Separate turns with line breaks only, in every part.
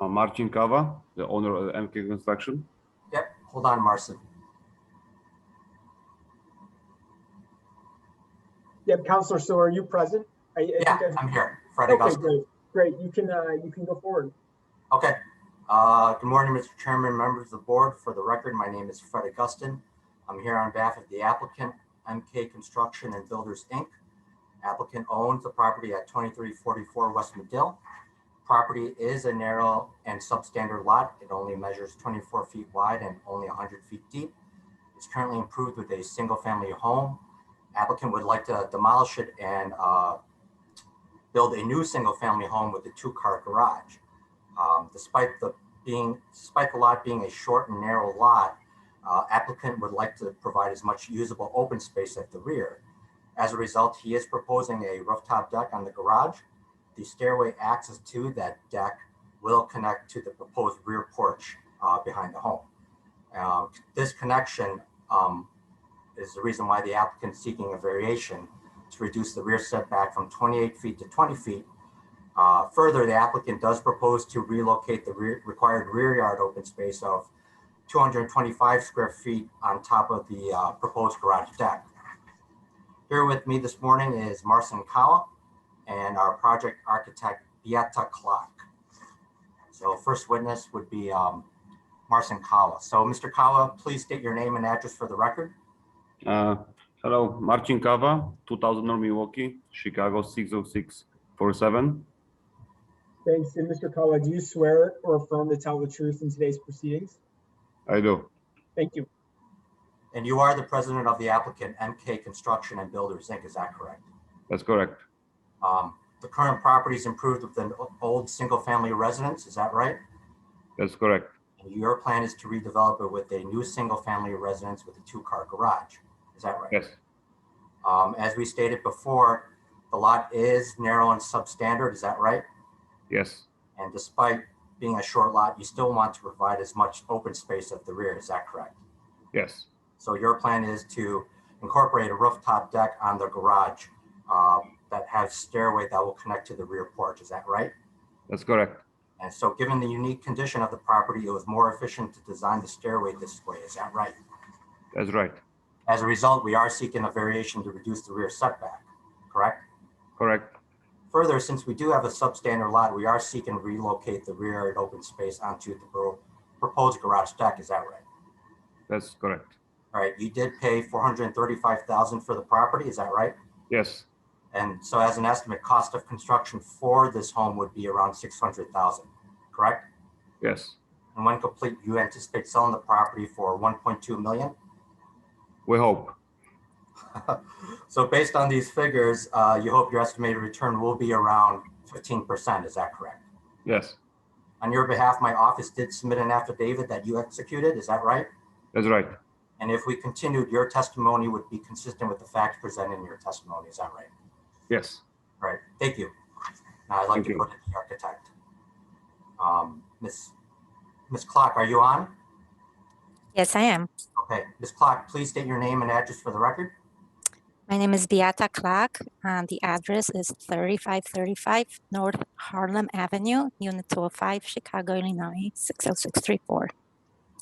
Uh, Marcin Kawa, the owner of MK Construction.
Yep, hold on, Marcin.
Yep, Counselor, so are you present? I, I
Yeah,
think
I'm here,
I've,
Friday
okay,
Gosper.
great, great. You can, uh, you can go forward.
Okay. Uh, Good morning, Mr. Chairman, members of the board. For the record, my name is Fred Augustin. I'm here on behalf of the applicant, MK Construction and Builders, Inc. Applicant owns the property at 2344 West Medill. Property is a narrow and substandard lot. It only measures 24 feet wide and only 100 feet deep. It's currently improved with a single-family home. Applicant would like to demolish it and uh, build a new single-family home with a two-car garage. Um, despite the being, despite the lot being a short and narrow lot, uh, applicant would like to provide as much usable open space at the rear. As a result, he is proposing a rooftop deck on the garage. The stairway access to that deck will connect to the proposed rear porch uh, behind the home. Uh, this connection um, is the reason why the applicant is seeking a variation to reduce the rear setback from 28 feet to 20 feet uh, Further, the applicant does propose to relocate the rear- required rear yard open space of 225 square feet on top of the uh, proposed garage deck. Here with me this morning is Marcin Kawa and our project architect Beata Clark. So first witness would be um, Marcin Kawa. So Mr. Kawa, please state your name and address for the record.
Uh, Hello, Marcin Kawa, 2000 North Milwaukee, Chicago 60647.
Thanks. And Mr. Kawa, do you swear or affirm to tell the truth in today's proceedings?
I do.
Thank you.
And you are the president of the applicant MK Construction and Builders Inc., is that correct?
That's correct.
Um, the current property is improved with an o- old single-family residence, is that right?
That's correct.
And your plan is to redevelop it with a new single-family residence with a two-car garage, is that right?
Yes.
Um, as we stated before, the lot is narrow and substandard, is that right?
Yes.
And despite being a short lot, you still want to provide as much open space at the rear, is that correct?
Yes.
So your plan is to incorporate a rooftop deck on the garage, uh, that has stairway that will connect to the rear porch, is that right?
That's correct.
And so given the unique condition of the property, it was more efficient to design the stairway this way, is that right?
That's right.
As a result, we are seeking a variation to reduce the rear setback, correct?
Correct.
Further, since we do have a substandard lot, we are seeking to relocate the rear and open space onto the pro- proposed garage deck, is that right?
That's correct.
All right, you did pay four hundred and thirty-five thousand for the property, is that right?
Yes.
And so as an estimate, cost of construction for this home would be around six hundred thousand, correct?
Yes.
And when complete, you anticipate selling the property for one point two million?
We hope.
So based on these figures, uh, you hope your estimated return will be around fifteen percent, is that correct?
Yes.
On your behalf, my office did submit an affidavit that you executed, is that right?
That's right.
And if we continued, your testimony would be consistent with the facts presented in your testimony, is that right?
Yes.
All right, thank you. Now I'd like
Thank
to
you.
go to the architect. Um, Ms. Ms. Clark, are you on?
Yes, I am.
Okay, Ms. Clark, please state your name and address for the record.
My name is Beata Clark, and the address is 3535 North Harlem Avenue, Unit 205, Chicago, Illinois, 60634.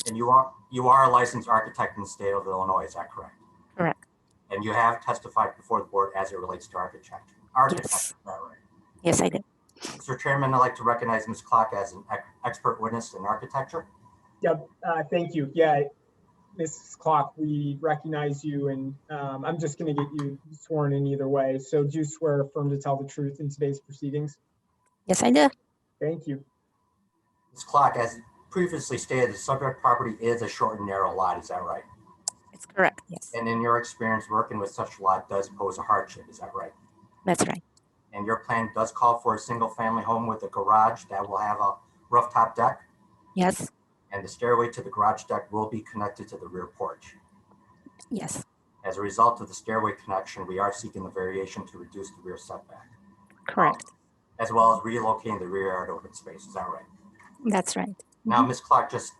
And you are, you are a licensed architect in the state of Illinois, is that correct?
Correct.
And you have testified before the board as it relates to architecture. Architecture, is that right?
Yes, I did.
Mr. Chairman, I'd like to recognize Ms. Clark as an ex- expert witness in architecture.
Yep, uh, thank you. Yeah, Mrs. Clock, we recognize you and, um, I'm just gonna get you sworn in either way. So do you swear or affirm to tell the truth in today's proceedings?
Yes, I do.
Thank you.
Ms. Clark, as previously stated, the subject property is a short and narrow lot, is that right?
It's correct. Yes,
And in your experience, working with such a lot does pose a hardship, is that right?
that's right.
And your plan does call for a single-family home with a garage that will have a rooftop deck,
Yes,
and the stairway to the garage deck will be connected to the rear porch.
yes,
As a result of the stairway connection, we are seeking the variation to reduce the rear setback,
correct.
as well as relocating the rear yard open space, is that right?
That's right.
Now, Ms. Clark, just